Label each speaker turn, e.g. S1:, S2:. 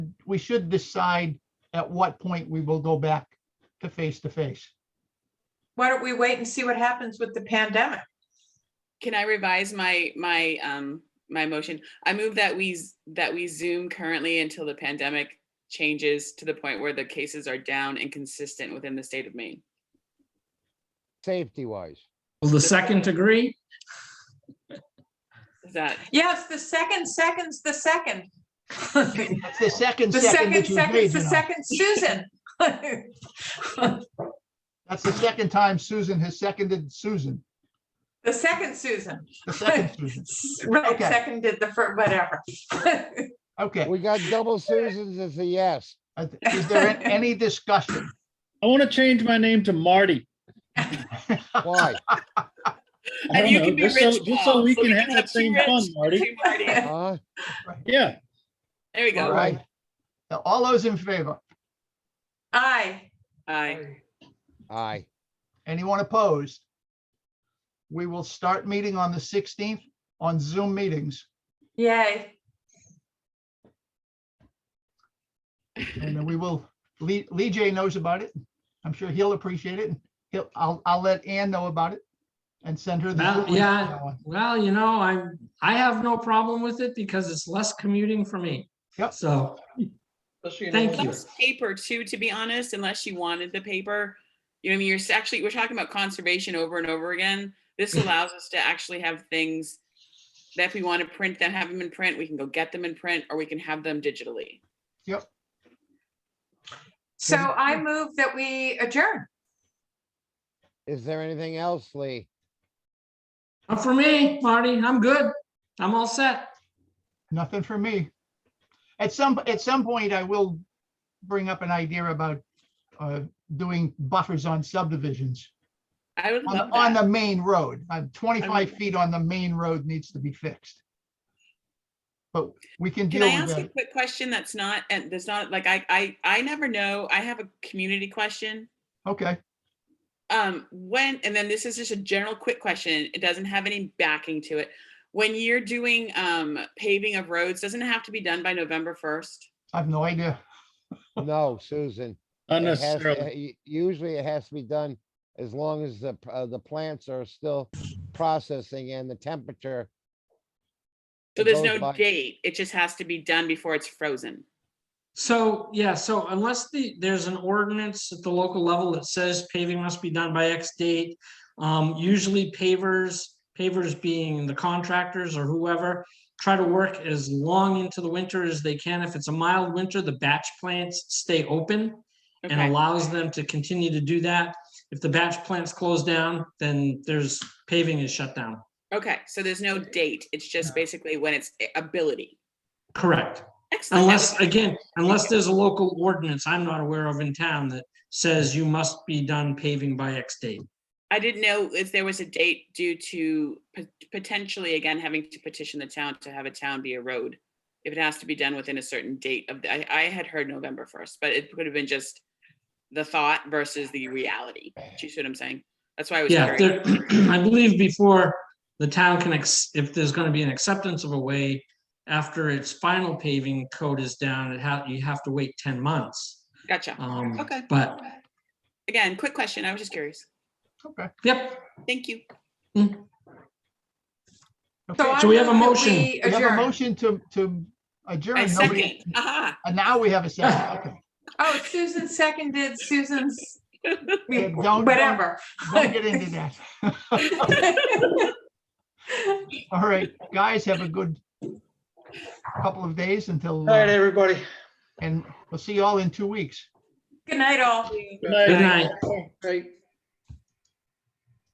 S1: we should decide at what point we will go back to face-to-face.
S2: Why don't we wait and see what happens with the pandemic?
S3: Can I revise my, my, um, my motion? I move that we, z- that we Zoom currently until the pandemic changes to the point where the cases are down and consistent within the state of Maine.
S4: safety wise.
S5: Will the second agree?
S3: Is that,
S2: Yes, the second second's the second.
S1: That's the second
S2: The
S1: second
S2: second
S1: that you agreed,
S2: second's
S1: you
S2: the
S1: know.
S2: second Susan.
S1: That's the second time Susan has seconded Susan,
S2: The second Susan.
S1: the second Susan.
S2: Right,
S1: Okay.
S2: second did the first, whatever.
S1: Okay,
S4: We got double Susans as a yes.
S1: uh, is there an- any discussion?
S6: I want to change my name to Marty.
S4: Why?
S6: I
S3: and
S6: don't
S3: you
S6: know,
S3: can be
S6: just so-
S3: rich.
S6: Just so
S3: Paul,
S6: we can have
S3: have
S6: that
S3: two
S6: same
S3: Rich,
S6: fun, Marty.
S3: two Marty. There
S4: Huh?
S6: Yeah,
S3: we
S1: All
S3: go.
S4: Alright.
S1: right. Now, All those in favor?
S2: Aye.
S3: Aye.
S4: Aye.
S1: Anyone opposed? We will start meeting on the 16th on Zoom meetings.
S2: Yay.
S1: And then we will, Lee, Lee J knows about it. I'm sure he'll appreciate it. He'll, I'll, I'll let Ann know about it and send her. the
S5: Well,
S1: Zoom link.
S5: yeah. Well, you know, I'm, I have no problem with it because it's less commuting for me.
S1: Yep.
S5: So, thank you.
S3: Plus Paper too, to be honest, unless you wanted the paper. You know, what I mean, you're s- actually, we're talking about conservation over and over again. This
S1: Hmm.
S3: allows us to actually have things that if we want to print them, have them in print, we can go get them in print or we can have them digitally.
S2: So I move that we adjourn.
S4: Is there anything else, Lee?
S5: Not For me, Marty, I'm good. I'm all set.
S1: Nothing for me. At some, at some point, I will bring up an idea about uh, doing buffers on subdivisions
S3: I would
S1: on,
S3: love
S1: the- on
S3: that.
S1: the main road. Uh, 25
S3: I'm-
S1: feet on the main road needs to be fixed. But we can
S3: Can
S1: deal
S3: I
S1: with
S3: ask a
S1: that.
S3: quick question that's not, and there's not, like, I, I, I never know. I have a community question.
S1: Okay,
S3: Um, when, and then this is just a general quick question. It doesn't have any backing to it. When you're doing, um, paving of roads, doesn't it have to be done by November first?
S1: I have no idea.
S4: No, Susan. It has-
S6: unnecessarily.
S4: uh, u- Usually it has to be done as long as the, p- uh, the plants are still processing and the temperature.
S3: So
S4: It
S3: there's
S4: goes
S3: no
S4: by-
S3: date. It just has to be done before it's frozen.
S5: So, yeah, so unless the, there's an ordinance at the local level that says paving must be done by X date. Um, usually pavers, pavers being the contractors or whoever, try to work as long into the winter as they can. If it's a mild winter, the batch plants stay open. and
S3: Okay,
S5: allows them to continue to do that. If the batch plants close down, then there's paving is shut down.
S3: okay. So there's no date. It's just basically when it's a- ability.
S5: Correct.
S3: Excellent. that was-
S5: Unless, again, unless there's a local ordinance I'm not aware of in town that says you must be done paving by X date.
S3: I didn't know if there was a date due to pot- potentially, again, having to petition the town to have a town be a road. If it has to be done within a certain date of, the- I, I had heard November first, but it could have been just the thought versus the reality. Do you see what I'm saying? That's why I was
S5: Yeah, there-
S3: curious.
S5: I believe before the town can, ex- if there's going to be an acceptance of a way, after its final paving code is down, it ha you have to wait 10 months.
S3: Gotcha.
S5: Um,
S3: Okay.
S5: But,
S3: Again, quick question. I was just curious.
S1: Okay.
S5: yep,
S3: Thank you.
S1: Okay.
S2: I
S5: So we have a
S2: move that
S5: motion.
S2: we
S1: We have a
S2: adjourn.
S1: motion to, to adjourn.
S3: I second.
S1: Nobody-
S3: Aha.
S1: And now we have a second. Okay.
S2: Oh, Susan seconded Susan's,
S1: Yeah, don't- don't-
S2: whatever.
S1: Don't get into that. All right, guys, have a good couple of days until,
S7: All right,
S1: uh,
S7: everybody.
S1: and we'll see you all in two weeks.
S2: Good night, all.
S5: good night.
S7: Right.